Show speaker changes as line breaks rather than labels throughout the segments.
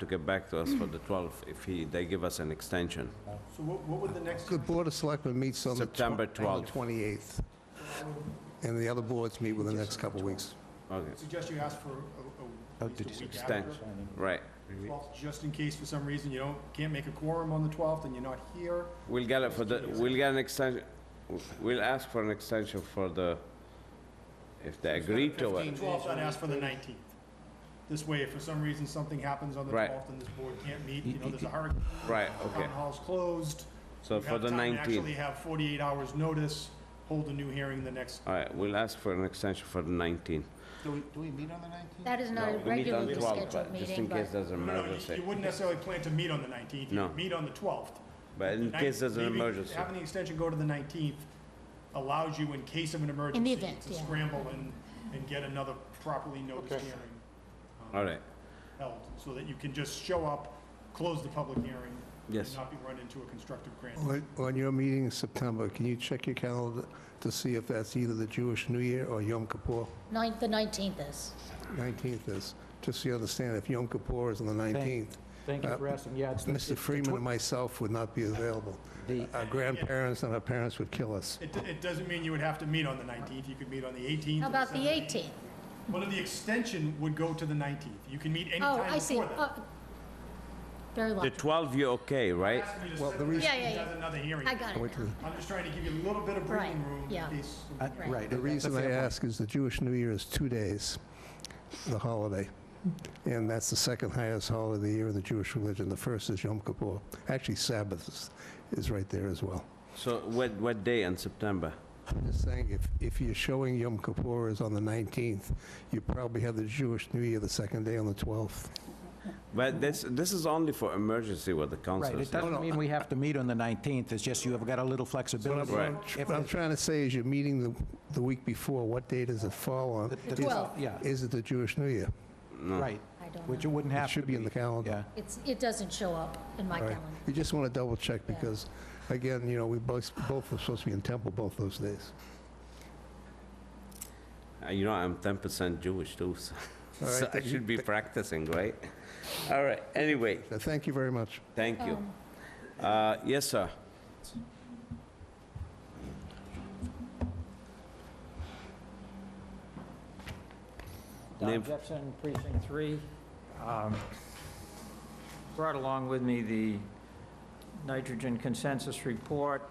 to get back to us for the 12th if he, they give us an extension.
So what, what would the next,
The Board of Selectmen meets on the tw-
September
on the
12th.
28th, and the other boards meet within the next couple of weeks.
Okay,
suggest you ask for a,
Oh,
a, at least a week after,
extension, right.
12th, just in case for some reason you don't, can't make a quorum on the 12th and you're not here.
We'll get it for the, we'll get an extension, we'll ask for an extension for the, if they agree to it.
12th, I'd ask for the 19th. This way, if for some reason something happens on the
Right.
12th and this board can't meet, you know, there's a hurricane.
Right, okay.
Town hall's closed.
So
you
for
have
the
time to
19th,
Actually have 48 hours notice, hold a new hearing the next,
all right, we'll ask for an extension for the 19th.
Do we, do we meet on the nineteenth?
That is
No,
not a
we meet on
regularly
12th,
scheduled
but Just in
meeting,
case
but
there's an
no, no, you-
emergency.
you wouldn't necessarily plan to meet on the 19th.
No.
You'd meet on the 12th.
But in
The
case
19th
there's an
leaving-
emergency.
Having the extension go to the 19th allows you, in case of an emergency,
event,
to
yeah.
scramble and, and get another properly noticed
Okay.
hearing
All right,
held, so that you can just show up, close the public hearing, and
yes.
not be run into a constructive grant.
On on your meeting in September, can you check your calendar to see if that's either the Jewish New Year or Yom Kippur?
ninth, the 19th is.
19th is, just so you understand, if Yom Kippur is on the 19th,
Thank you for asking, yeah. it's the- it's the
Mr. Freeman and myself would not be available.
The-
Our grandparents and our parents would kill us.
It, it doesn't mean you would have to meet on the 19th, you could meet on the 18th.
How
or
about the
17th.
18th?
Well, no, the extension would go to the 19th, you can meet any
Oh,
time
I see.
before that.
Oh, Very
The
well.
12th, you're okay, right?
Ask me to
Well,
set
the
the
reason-
Yeah, yeah,
date
yeah.
as another hearing.
I got it
Wait till-
now.
I'm just trying to give you a little bit of breathing
Right,
room
yeah.
in case.
Uh,
Right.
Right.
The reason
that's
I
the other-
ask is the Jewish New Year is two days, the holiday, and that's the second highest holiday of the year in the Jewish religion. The first is Yom Kippur. Actually, Sabbath is, is right there as well.
So what, what day in September?
I'm just saying, if, if you're showing Yom Kippur is on the 19th, you probably have the Jewish New Year the second day on the 12th.
But this, this is only for emergency what the
Right,
council
it
said.
doesn't mean we have to meet on the 19th, it's just you have got a little flexibility.
Right.
If
What I'm
it-
trying to say is you're meeting the, the week before, what day does it fall on?
the- the-
Is-
Twelve.
Yeah,
Is it the Jewish New Year?
right,
I don't
which
know.
you wouldn't
It
have to
should
be.
be in the calendar.
Yeah,
It's, it doesn't show up in my
All right.
calendar.
You just want to double check
Yeah.
because, again, you know, we both, both were supposed to be in temple both those days.
Uh, You know, I'm 10% Jewish too, so-
All
so
right,
I
then you-
should be practicing, right? All right, anyway,
Uh, Thank you very much.
thank you.
Um,
Uh, Yes, sir. Name-
Don Jepson, Precinct 3. Um, Brought along with me the nitrogen consensus report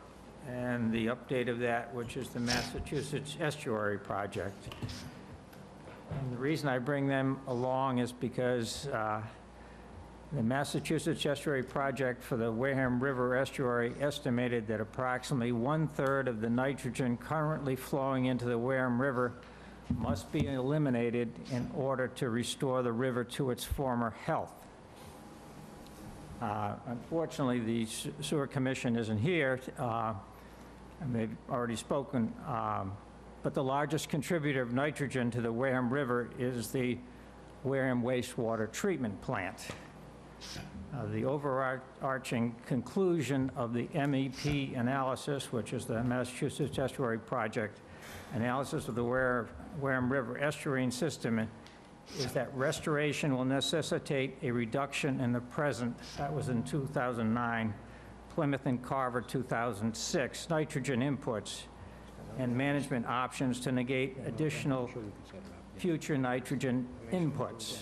and the update of that, which is the Massachusetts Estuary Project. And the reason I bring them along is because uh, the Massachusetts Estuary Project for the Wareham River Estuary estimated that approximately one-third of the nitrogen currently flowing into the Wareham River must be eliminated in order to restore the river to its former health. Uh, Unfortunately, the Se- Sewer Commission isn't here, uh, and they've already spoken, um, but the largest contributor of nitrogen to the Wareham River is the Wareham wastewater treatment plant. Uh, The overarching conclusion of the MEP analysis, which is the Massachusetts Estuary Project, analysis of the Ware- Wareham River estuarine system, is that restoration will necessitate a reduction in the present, that was in 2009, Plymouth and Carver 2006, nitrogen inputs and management options to negate additional future nitrogen inputs.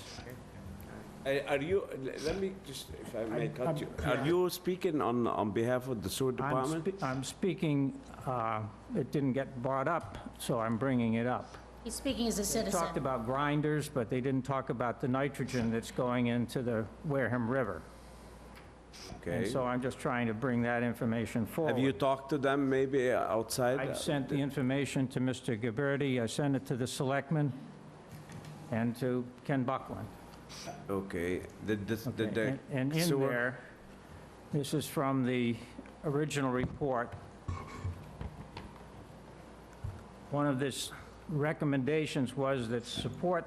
Uh, Are you, l- let me just, if I may
I'm-
cut
I'm-
you, are
yeah.
you speaking on, on behalf of the sewer
I'm
department?
spe- I'm speaking, uh, it didn't get brought up, so I'm bringing it up.
He's speaking as a
They talked
citizen.
about grinders, but they didn't talk about the nitrogen that's going into the Wareham River. And
Okay.
so I'm just trying to bring that information forward.
Have you talked to them maybe uh, outside?
I've sent the information to Mr. Gabberty, I sent it to the selectmen, and to Ken Buckland.
Okay, did this, did
Okay,
the
And and in
sewer-
there, this is from the original report. One of this recommendations was that support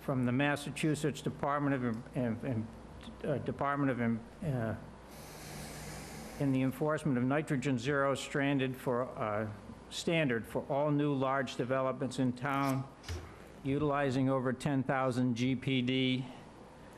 from the Massachusetts Department of, Em- Em- Em- uh, Department of, Em- uh, in the enforcement of nitrogen zero stranded for, uh, standard for all new large developments in town utilizing over 10,000 GPD